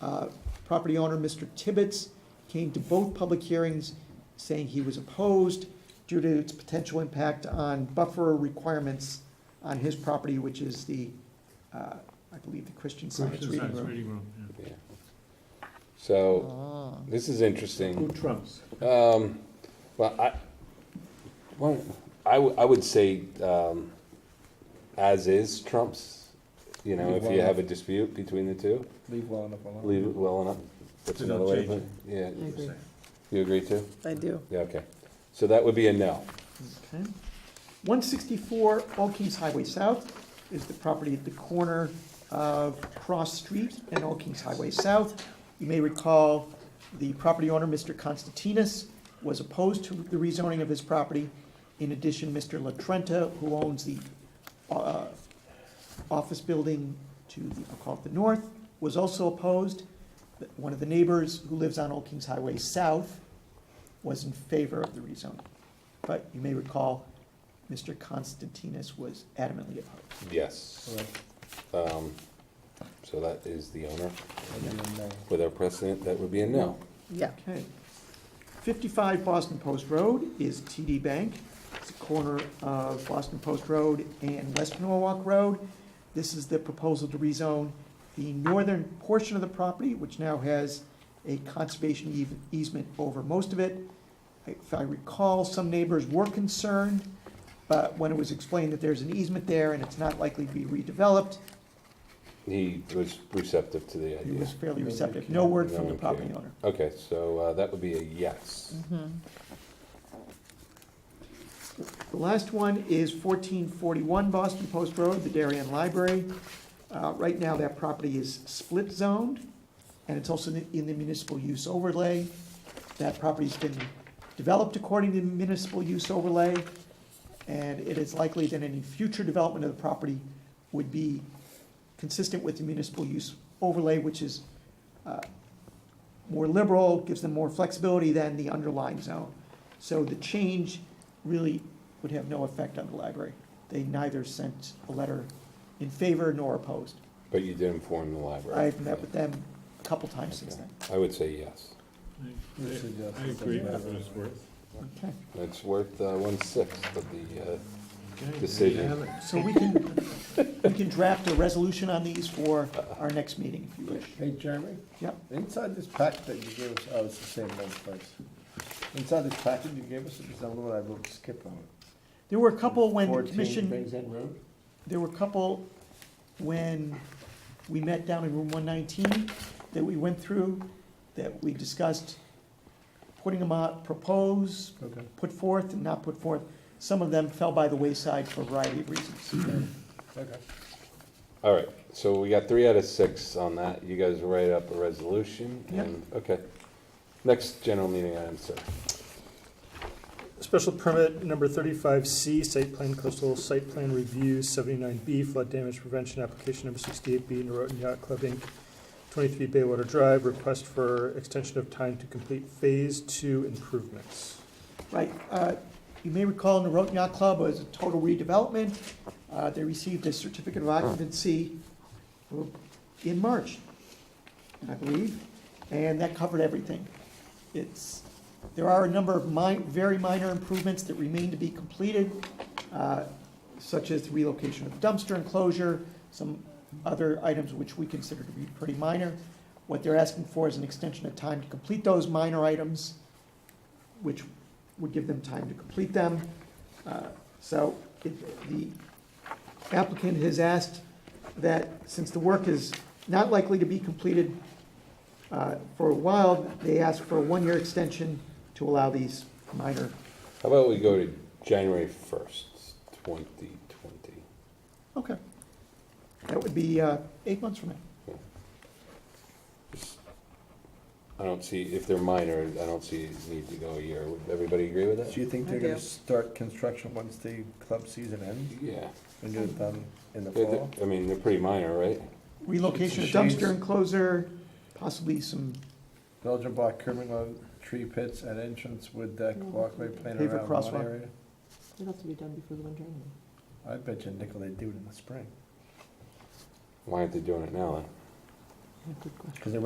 Uh, Property owner, Mr. Tibbetts, came to both public hearings saying he was opposed due to its potential impact on buffer requirements on his property, which is the, uh, I believe, the Christian Science Christian Reading Science Room. Reading Room, yeah. Yeah. So, Ah. this is interesting. trumps? Um, well, I, well, I, w- I would say, um, as is trumps, you know, if you have a dispute between the two, Leave well enough alone. leave it well enough. That's To not another way to change put it. Yeah, I agree. you agree too? I do. Yeah, okay. So that would be a no. Okay. One sixty-four All Kings Highway South is the property at the corner of Cross Street and All Kings Highway South. You may recall, the property owner, Mr. Constantinos, was opposed to the rezoning of his property. In addition, Mr. Latrenta, who owns the, uh, office building to, the- I'll call it the north, was also opposed. One of the neighbors who lives on All Kings Highway South was in favor of the rezoning. But you may recall, Mr. Constantinos was adamantly opposed. Yes. Correct. Um, so that is the owner. That'd be a no. With our precedent, that would be a no. Yeah. Okay. Fifty-five Boston Post Road is TD Bank. It's a corner of Boston Post Road and West Norwalk Road. This is the proposal to rezone the northern portion of the property, which now has a conservation eas- easement over most of it. If I recall, some neighbors were concerned, but when it was explained that there's an easement there and it's not likely to be redeveloped, He was receptive to the He idea. was fairly Yeah. receptive, no word No from the one property cared. owner. Okay, so, uh, that would be a yes. The last one is fourteen forty-one Boston Post Road, the Darien Library. Uh, right now, that property is split zoned, and it's also in the municipal use overlay. That property's been developed according to municipal use overlay, and it is likely that any future development of the property would be consistent with the municipal use overlay, which is, uh, more liberal, gives them more flexibility than the underlying zone. So the change really would have no effect on the library. They neither sent a letter in favor nor opposed. But you did inform the library. I've met with them a couple times since then. I would say yes. This is just- I agree for what it's worth. Okay, It's worth uh, one-sixth of the, uh, Okay, there you Decision. have it. so we can, we can draft a resolution on these for our next meeting, if you wish. Hey, Jeremy? Yep. Inside this packet that you gave us, oh, it's the same one, thanks. Inside this packet you gave us, there's another one I wrote skip on. There were a couple when the 14 commission, Things that road? there were a couple when we met down in room one nineteen that we went through, that we discussed putting them out, propose, Okay. put forth and not put forth. Some of them fell by the wayside for a variety of reasons. Okay. all right. So we got three out of six on that. You guys write up a resolution Yep. and, okay. Next general meeting item, sir. Special permit number thirty-five C, site plan coastal site plan review, seventy-nine B, flood damage prevention application number sixty-eight B, Norotan Yacht Club Inc., twenty-three Baywater Drive, request for extension of time to complete phase two improvements. Right, uh, you may recall the Roten Yacht Club was a total redevelopment. Uh, They received a certificate of occupancy in March, I believe, and that covered everything. It's, there are a number of mi- very minor improvements that remain to be completed, uh, such as the relocation of dumpster enclosure, some other items which we consider to be pretty minor. What they're asking for is an extension of time to complete those minor items, which would give them time to complete them. Uh, So it- the applicant has asked that, since the work is not likely to be completed uh, for a while, they ask for a one-year extension to allow these minor, How about we go to January first, twenty twenty? okay. That would be uh, eight months from now. I don't see, if they're minor, I don't see need to go a year. Would everybody agree with Do that? you think they're I gonna do. start construction once the club season ends Yeah. and get it done in the They're- they're- fall? I mean, they're pretty minor, right? Relocation of It's a shame. dumpster enclosure, possibly some Belgian block curbing on tree pits and entrance wood deck walkway playing Paver around one crosswalk. area. It'll have to be done before the winter. anyway. I bet you nickel they do it in the spring, Why aren't they doing it now then? Yeah, Good question. because they're